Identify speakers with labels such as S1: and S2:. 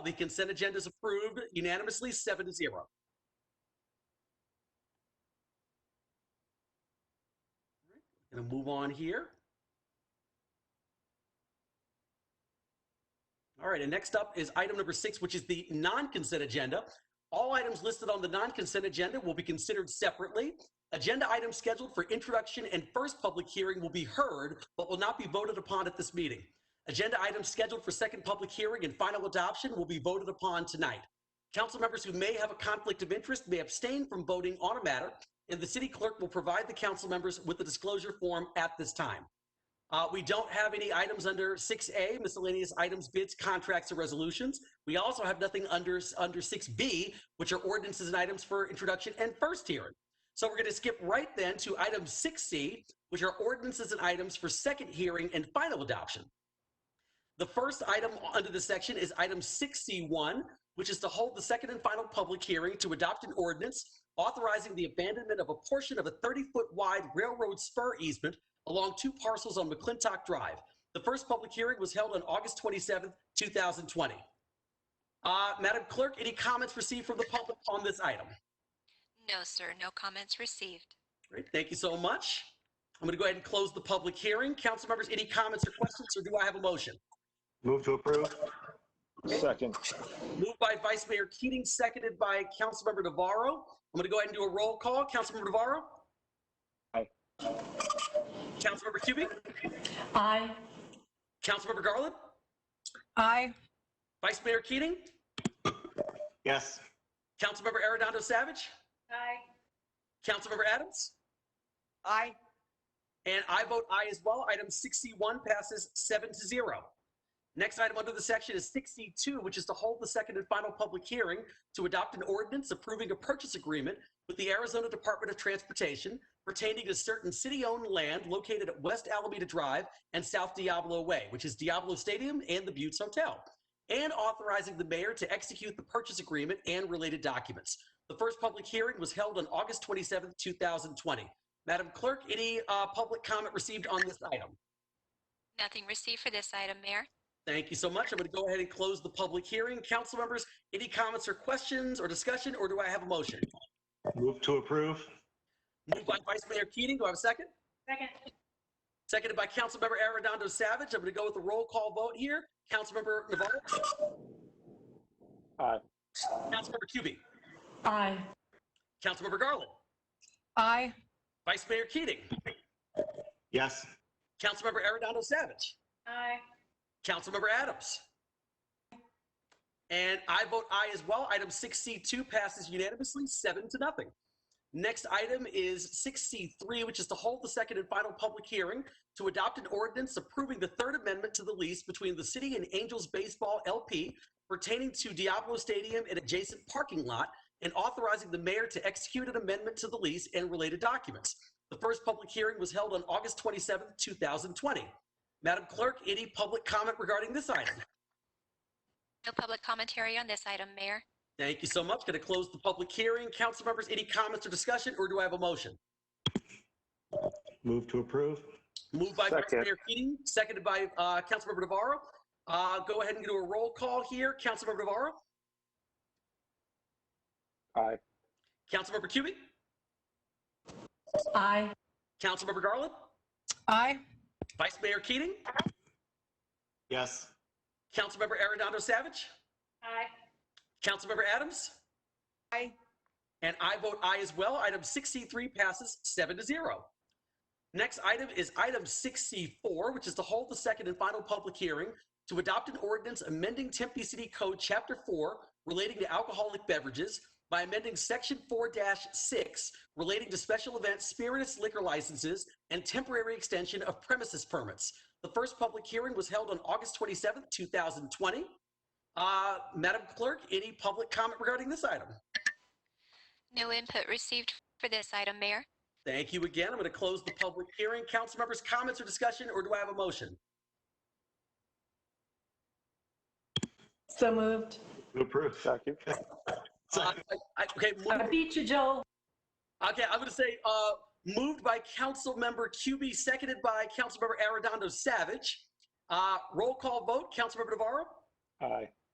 S1: The consent agenda is approved unanimously, seven to zero. Going to move on here. All right, and next up is item number six, which is the non-consent agenda. All items listed on the non-consent agenda will be considered separately. Agenda items scheduled for introduction and first public hearing will be heard, but will not be voted upon at this meeting. Agenda items scheduled for second public hearing and final adoption will be voted upon tonight. Council members who may have a conflict of interest may abstain from voting on a matter, and the city clerk will provide the council members with the disclosure form at this time. Uh, We don't have any items under 6A, miscellaneous items, bids, contracts, or resolutions. We also have nothing under, under 6B, which are ordinances and items for introduction and first hearing. So we're going to skip right then to item 6C, which are ordinances and items for second hearing and final adoption. The first item under this section is item 6C1, which is to hold the second and final public hearing to adopt an ordinance authorizing the abandonment of a portion of a 30-foot wide railroad spur easement along two parcels on McClintock Drive. The first public hearing was held on August 27, 2020. Uh, Madam Clerk, any comments received from the public on this item?
S2: No, sir, no comments received.
S1: Great, thank you so much. I'm going to go ahead and close the public hearing. Council members, any comments or questions, or do I have a motion?
S3: Move to approve.
S4: Second,
S1: Moved by Vice Mayor Keating, seconded by Councilmember Navarro. I'm going to go ahead and do a roll call. Councilmember Navarro?
S4: Aye.
S1: Councilmember Cubie?
S5: Aye.
S1: Councilmember Garland?
S5: Aye.
S1: Vice Mayor Keating?
S3: Yes.
S1: Councilmember Arredondo Savage?
S5: Aye.
S1: Councilmember Adams?
S5: Aye.
S1: And I vote aye as well. Item 61 passes seven to zero. Next item under the section is 62, which is to hold the second and final public hearing to adopt an ordinance approving a purchase agreement with the Arizona Department of Transportation pertaining to certain city-owned land located at West Alameda Drive and South Diablo Way, which is Diablo Stadium and the Buttes Hotel, and authorizing the mayor to execute the purchase agreement and related documents. The first public hearing was held on August 27, 2020. Madam Clerk, any uh, public comment received on this item?
S2: Nothing received for this item, Mayor.
S1: Thank you so much. I'm going to go ahead and close the public hearing. Council members, any comments or questions or discussion, or do I have a motion?
S3: Move to approve.
S1: Moved by Vice Mayor Keating, do I have a second?
S5: Second.
S1: Seconded by Councilmember Arredondo Savage. I'm going to go with a roll call vote here. Councilmember Navarro?
S4: Aye.
S1: Councilmember Cubie?
S5: Aye.
S1: Councilmember Garland?
S5: Aye.
S1: Vice Mayor Keating?
S3: Yes.
S1: Councilmember Arredondo Savage?
S5: Aye.
S1: Councilmember Adams. And I vote aye as well. Item 6C2 passes unanimously, seven to nothing. Next item is 6C3, which is to hold the second and final public hearing to adopt an ordinance approving the Third Amendment to the lease between the city and Angels Baseball LP pertaining to Diablo Stadium and adjacent parking lot and authorizing the mayor to execute an amendment to the lease and related documents. The first public hearing was held on August 27, 2020. Madam Clerk, any public comment regarding this item?
S2: No public commentary on this item, Mayor.
S1: Thank you so much. Going to close the public hearing. Council members, any comments or discussion, or do I have a motion?
S3: Move to approve.
S1: Moved by Vice
S4: Second.
S1: Mayor Keating, seconded by uh, Councilmember Navarro. Uh, Go ahead and do a roll call here. Councilmember Navarro?
S4: Aye.
S1: Councilmember Cubie?
S5: Aye.
S1: Councilmember Garland?
S5: Aye.
S1: Vice Mayor Keating?
S3: Yes.
S1: Councilmember Arredondo Savage?
S5: Aye.
S1: Councilmember Adams?
S5: Aye.
S1: And I vote aye as well. Item 63 passes seven to zero. Next item is item 64, which is to hold the second and final public hearing to adopt an ordinance amending Tempe City Code Chapter 4 relating to alcoholic beverages by amending Section 4-6 relating to special event spirits liquor licenses and temporary extension of premises permits. The first public hearing was held on August 27, 2020. Uh, Madam Clerk, any public comment regarding this item?
S2: No input received for this item, Mayor.
S1: Thank you again. I'm going to close the public hearing. Council members, comments or discussion, or do I have a motion?
S5: So moved.
S3: To approve.
S4: second,
S1: Uh, I- I- Okay,
S5: I
S1: moved-
S5: beat you, Joel.
S1: okay, I'm going to say, uh, moved by Councilmember QB, seconded by Councilmember Arredondo Savage. Uh, Roll call vote, Councilmember Navarro,
S4: aye.